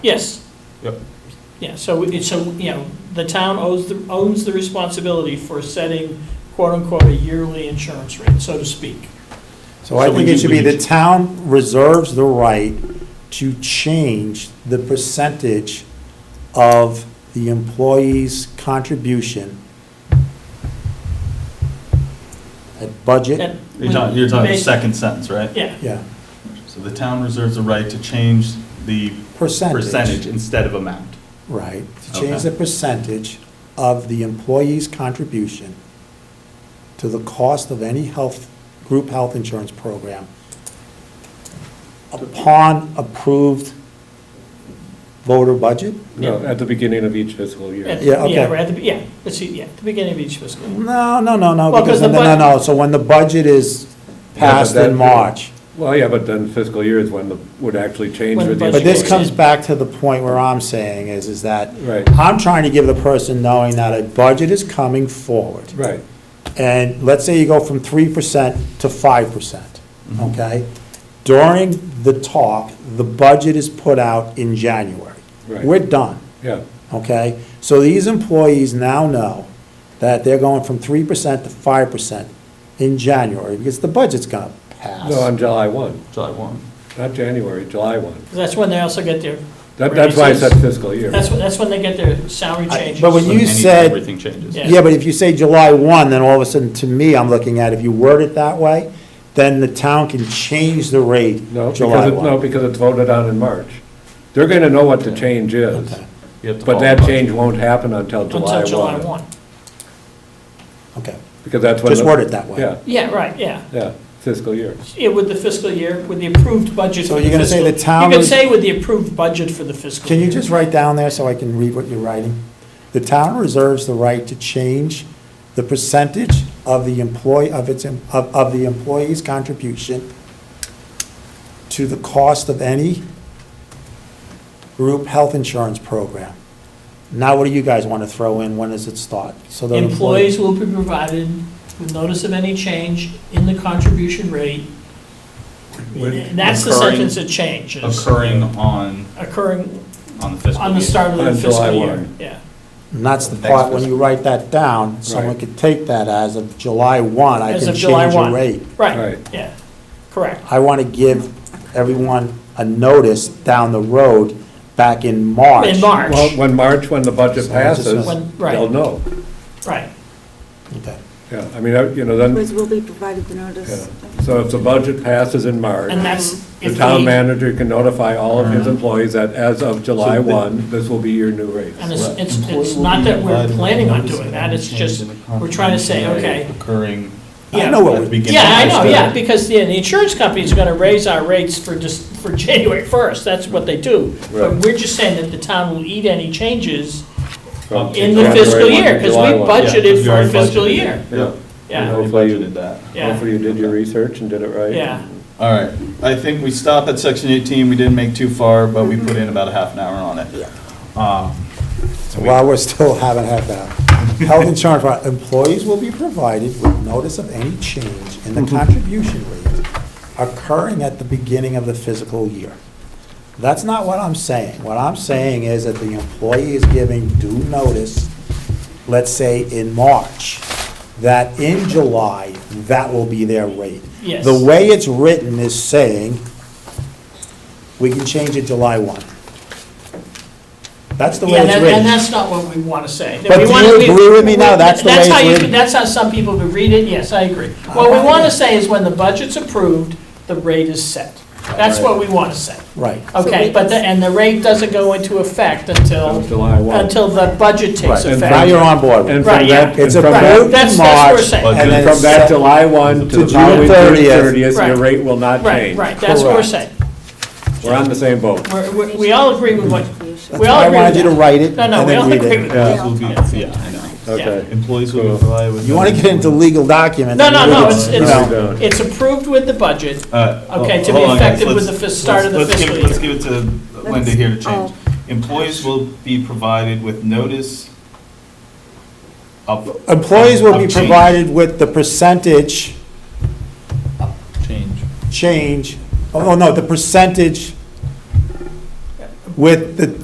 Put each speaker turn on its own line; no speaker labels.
Yes.
Yep.
Yeah, so, it- so, you know, the town owes, the owns the responsibility for setting quote-unquote a yearly insurance rate, so to speak.
So I
So we
think it
need-
should
we
be the
need-
town reserves the right to change the percentage of the employee's contribution at budget,
That-
You're talking, you're talking the
Based-
second sentence, right?
Yeah,
yeah,
So the town reserves the right to change the
percentage.
percentage instead of amount.
Right, to change
Okay.
the percentage of the employee's contribution to the cost of any health, group health insurance program upon approved voter budget?
No, at the beginning of each fiscal year.
at-
Yeah,
yeah,
okay.
right at the, yeah, let's see, yeah, at the beginning of each fiscal. year.
No, no, no, no,
Well, 'cause
because,
the
no, no,
bud-
no, so when the budget is passed
Yeah, but
in
that-
March.
Well, yeah, but then fiscal year is when the, would actually change
When
with
the
the.
But this
Education.
comes back to the point where I'm saying is, is that
Right.
I'm trying to give the person knowing that a budget is coming forward.
Right,
And let's say you go from three percent to five percent,
Mm-hmm.
okay? During the talk, the budget is put out in January.
Right.
We're done,
yeah,
okay? So these employees now know that they're going from three percent to five percent in January, because the budget's gonna pass.
no, on July one,
July one.
not January, July one.
'Cause That's when they also get their,
That, that's why I said
Raises.
fiscal year.
that's, when- that's when they get their salary
I-
changes.
but when
So
you
anything-
said-
Everything changes.
Yeah.
Yeah, but if you say July 1, then all of a sudden, to me, I'm looking at, if you word it that way, then the town can change the rate
No, because
July
it, no,
1.
because it's voted on in March. They're gonna know what the change is,
Okay.
You have to
but
follow
that
the budget.
change won't happen until
Until July
July one.
one.
Okay,
Because that's when.
just
the-
word it that way.
Yeah,
Yeah, right, yeah.
yeah, fiscal year.
Yeah, with the fiscal year, with the approved budget.
So
for
you're gonna say
fiscal-
the town
You could
is-
say with the approved budget for the fiscal.
Can you
year.
just write down there so I can read what you're writing? The town reserves the right to change the percentage of the employee, of its, em- of, of the employee's contribution to the cost of any group health insurance program. Now, what do you guys want to throw in? When does it start? So the employee-
Employees will be provided with notice of any change in the contribution rate. And That's the
Occurring-
sentence that changes,
Occurring on,
occurring
on the fiscal
on the
year.
start of the
On July
fiscal year,
one.
yeah.
And that's the
The next
part, when you
fiscal.
write that down, someone
Right.
could take that as of July 1, I
As
can
of July
change your
1.
rate.
Right,
Right.
yeah, correct.
I want to give everyone a notice down the road back in March.
In March,
Well, when March, when the budget
So it's just-
passes,
When- right.
they'll know.
right.
Okay.
Yeah, I mean, I- you know, then.
Liz will be provided the
Yeah,
notice.
So if the budget passes in March,
And that's
the
if
town
the,
manager can notify all of his employees that as of July 1, this will be your new rate.
and it's, it's it's not that we're planning on doing that, it's just, we're trying to say, okay,
Occurring.
I know what
at the
we-
beginning
yeah, I
of
know,
the
yeah,
fiscal-
because the, the insurance company's gonna raise our rates for just, for January first, that's what they do. But
Right.
we're just saying that the town will eat any changes
From
in the
January
fiscal
1 to
year, because
July
we
1.
Yeah,
budgeted
we
for a
already
fiscal
budgeted.
year,
Yeah.
yeah,
We
Hopefully you-
budgeted that.
yeah,
Hopefully you did your research and did it right.
yeah.
All right, I think we stop at section 18, we didn't make too far, but we put in about a half an hour on it. Um,
So while we're still haven't had that, health insurance, for employees will be provided with notice of any change in the contribution rate occurring at the beginning of the fiscal year. That's not what I'm saying. What I'm saying is that the employee is giving due notice, let's say in March, that in July, that will be their rate.
Yes.
The way it's written is saying, we can change it July 1. That's the way
Yeah,
it's
that-
written.
and that's not what we want to say.
But
We
do
wanna-
you
we-
agree with me now? That's the way
how
it's
you-
written.
That's how some people would read it, yes, I agree. What we want to say is when the budget's approved, the rate is set. That's what we want to say,
Right.
okay? But, the- and the rate doesn't go into effect until,
Of July 1
until the budget takes
Right.
Now
effect.
you're on board with
And
it.
from
Right,
that,
It's
and from
approved
that,
That's-
in
that's what we're
March,
saying.
and then
from
it's
that
set.
July 1
To
to the
June
following June
30th.
30th,
Right.
your rate will not
Right,
change.
right, that's what we're
Correct.
saying.
We're on the same boat.
We're- We we all agree with what,
That's
we
why
all
I
agree with
wanted you to
that.
write it
No, no,
and
we
then
all
read
agree with
it.
that.
Employees will be- Yeah, I know.
Okay.
Employees will be provided with.
You want to get into legal documents.
No, no, no,
you
it's, it's,
know.
No, we don't.
it's approved with the budget, Okay,
Okay,
to be effective with the fis- start of the fiscal
Let's give it to Linda here to change.
oh.
Employees will be provided with notice of.
Employees will
of
be
change-
provided with the percentage
Change.
change, oh, no, the percentage with the